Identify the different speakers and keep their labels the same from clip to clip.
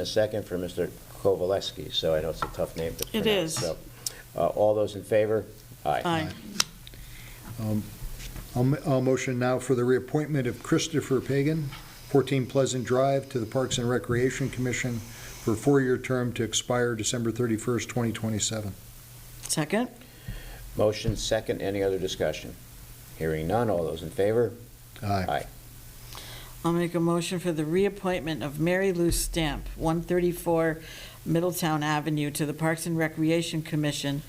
Speaker 1: A second for Mr. Kovaleski, so I know it's a tough name to
Speaker 2: It
Speaker 1: pronounce.
Speaker 2: is.
Speaker 1: So, uh, All those in favor?
Speaker 2: Aye.
Speaker 3: I'll m- I'll motion now for the reappointment of Christopher Pagan, 14 Pleasant Drive, to the Parks and Recreation Commission for a four-year term to expire December 31st, 2027.
Speaker 2: Second?
Speaker 1: Motion second, any other discussion? Hearing none, all those in favor? Aye.
Speaker 2: I'll make a motion for the reappointment of Mary Lou Stamp, 134 Middletown Avenue, to the Parks and Recreation Commission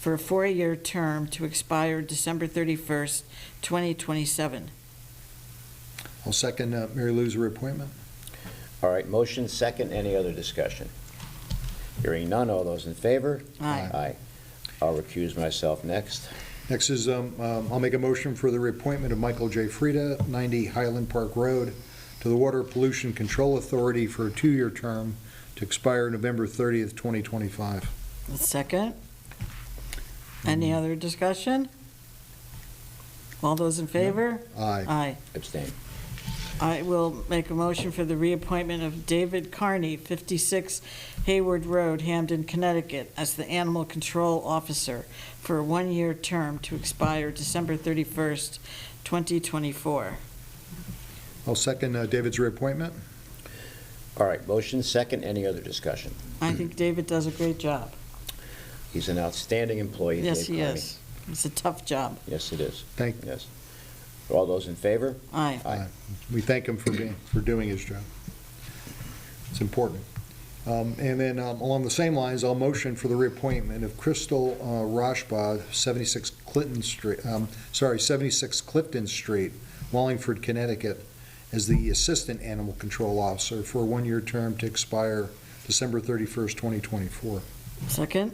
Speaker 2: for a four-year term to expire December 31st, 2027.
Speaker 3: I'll second uh, Mary Lou's reappointment.
Speaker 1: All right, motion second, any other discussion? Hearing none, all those in favor?
Speaker 2: Aye.
Speaker 1: Aye. I'll recuse myself next.
Speaker 3: Next is, um, um, I'll make a motion for the reappointment of Michael J. Frieda, 90 Highland Park Road, to the Water Pollution Control Authority for a two-year term to expire November 30th, 2025.
Speaker 2: Second? Any other discussion? All those in favor?
Speaker 3: Aye.
Speaker 2: Aye.
Speaker 1: Abstain.
Speaker 2: I will make a motion for the reappointment of David Carney, 56 Hayward Road, Hamden, Connecticut, as the Animal Control Officer for a one-year term to expire December 31st, 2024.
Speaker 3: I'll second uh, David's reappointment.
Speaker 1: All right, motion second, any other discussion?
Speaker 2: I think David does a great job.
Speaker 1: He's an outstanding employee.
Speaker 2: Yes,
Speaker 1: Dave
Speaker 2: he
Speaker 1: Carney.
Speaker 2: is. It's a tough job.
Speaker 1: Yes, it is,
Speaker 3: Thank,
Speaker 1: yes. All those in favor?
Speaker 2: Aye.
Speaker 3: we thank him for being, for doing his job. It's important. Um, And then um, along the same lines, I'll motion for the reappointment of Crystal uh, Rashbaugh, 76 Clinton Street, um, sorry, 76 Clifton Street, Wallingford, Connecticut, as the Assistant Animal Control Officer for a one-year term to expire December 31st, 2024.
Speaker 2: Second?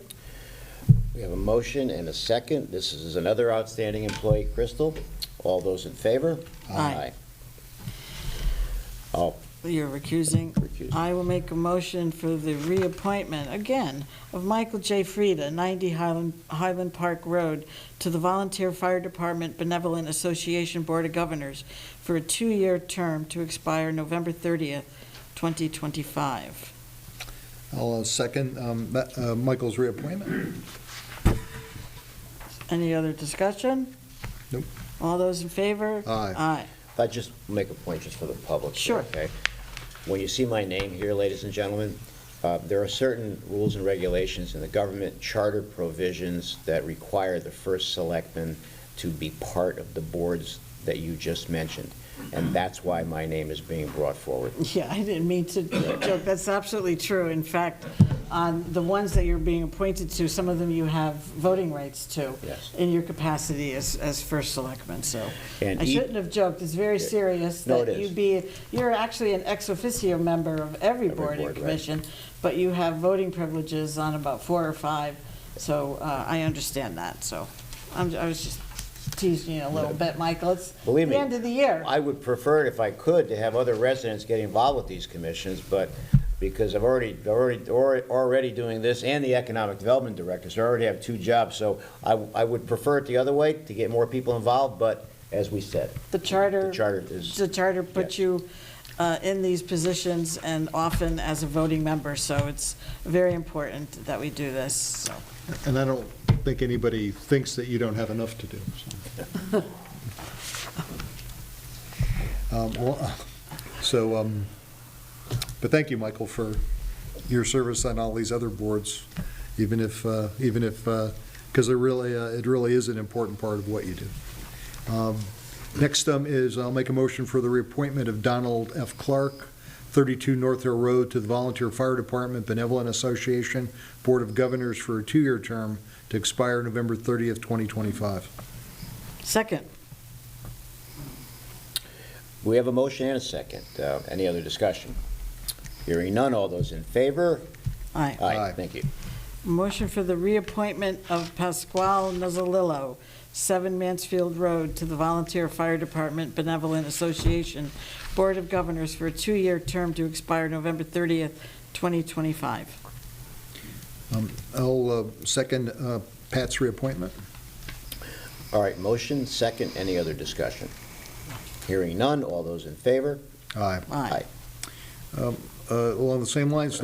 Speaker 1: We have a motion and a second. This is another outstanding employee, Crystal. All those in favor?
Speaker 2: Aye.
Speaker 1: I'll
Speaker 2: You're recusing.
Speaker 1: recuse.
Speaker 2: I will make a motion for the reappointment, again, of Michael J. Frieda, 90 Highland, Highland Park Road, to the Volunteer Fire Department Benevolent Association Board of Governors for a two-year term to expire November 30th, 2025.
Speaker 3: I'll uh, second um, Ma- uh, Michael's reappointment.
Speaker 2: Any other discussion?
Speaker 3: Nope.
Speaker 2: All those in favor?
Speaker 3: Aye.
Speaker 2: Aye.
Speaker 1: I just make a point just for the public. here,
Speaker 2: Sure.
Speaker 1: Okay? When you see my name here, ladies and gentlemen, uh, there are certain rules and regulations in the government charter provisions that require the first selectman to be part of the boards that you just mentioned. And that's why my name is being brought forward.
Speaker 2: Yeah, I didn't mean to joke. That's absolutely true. In fact, on the ones that you're being appointed to, some of them you have voting rights to.
Speaker 1: Yes.
Speaker 2: In your capacity as, as first selectman, so.
Speaker 1: And
Speaker 2: I
Speaker 1: e-
Speaker 2: shouldn't have joked. It's very serious
Speaker 1: No, it
Speaker 2: that you
Speaker 1: is.
Speaker 2: be, you're actually an ex officio member of every board and
Speaker 1: board, right.
Speaker 2: commission, but you have voting privileges on about four or five, so uh, I understand that, so. I'm, I was just teasing you a little bit, Michael. It's the
Speaker 1: Believe me,
Speaker 2: end of the year.
Speaker 1: I would prefer, if I could, to have other residents get involved with these commissions, but because I've already, already, already already doing this, and the economic development director, so I already have two jobs, so I, I would prefer it the other way, to get more people involved, but as we said,
Speaker 2: The charter.
Speaker 1: the charter is,
Speaker 2: The charter puts
Speaker 1: Yes.
Speaker 2: you uh, in these positions and often as a voting member, so it's very important that we do this, so.
Speaker 3: And I don't think anybody thinks that you don't have enough to do. so. Um, well, So, um, but thank you, Michael, for your service on all these other boards, even if, uh, even if, because it really, uh, it really is an important part of what you do. Um, Next um, is, I'll make a motion for the reappointment of Donald F. Clark, 32 North Hill Road, to the Volunteer Fire Department Benevolent Association Board of Governors for a two-year term to expire November 30th, 2025.
Speaker 2: Second,
Speaker 1: we have a motion and a second. Uh, Any other discussion? Hearing none, all those in favor?
Speaker 2: aye.
Speaker 1: Aye,
Speaker 3: Aye.
Speaker 1: thank you.
Speaker 2: Motion for the reappointment of Pasquale Nuzzolillo, 7 Mansfield Road, to the Volunteer Fire Department Benevolent Association Board of Governors for a two-year term to expire November 30th, 2025.
Speaker 3: I'll uh, second uh, Pat's reappointment.
Speaker 1: All right, motion, second, any other discussion? Hearing none, all those in favor?
Speaker 3: Aye.
Speaker 2: Aye.
Speaker 3: Uh, Along the same lines,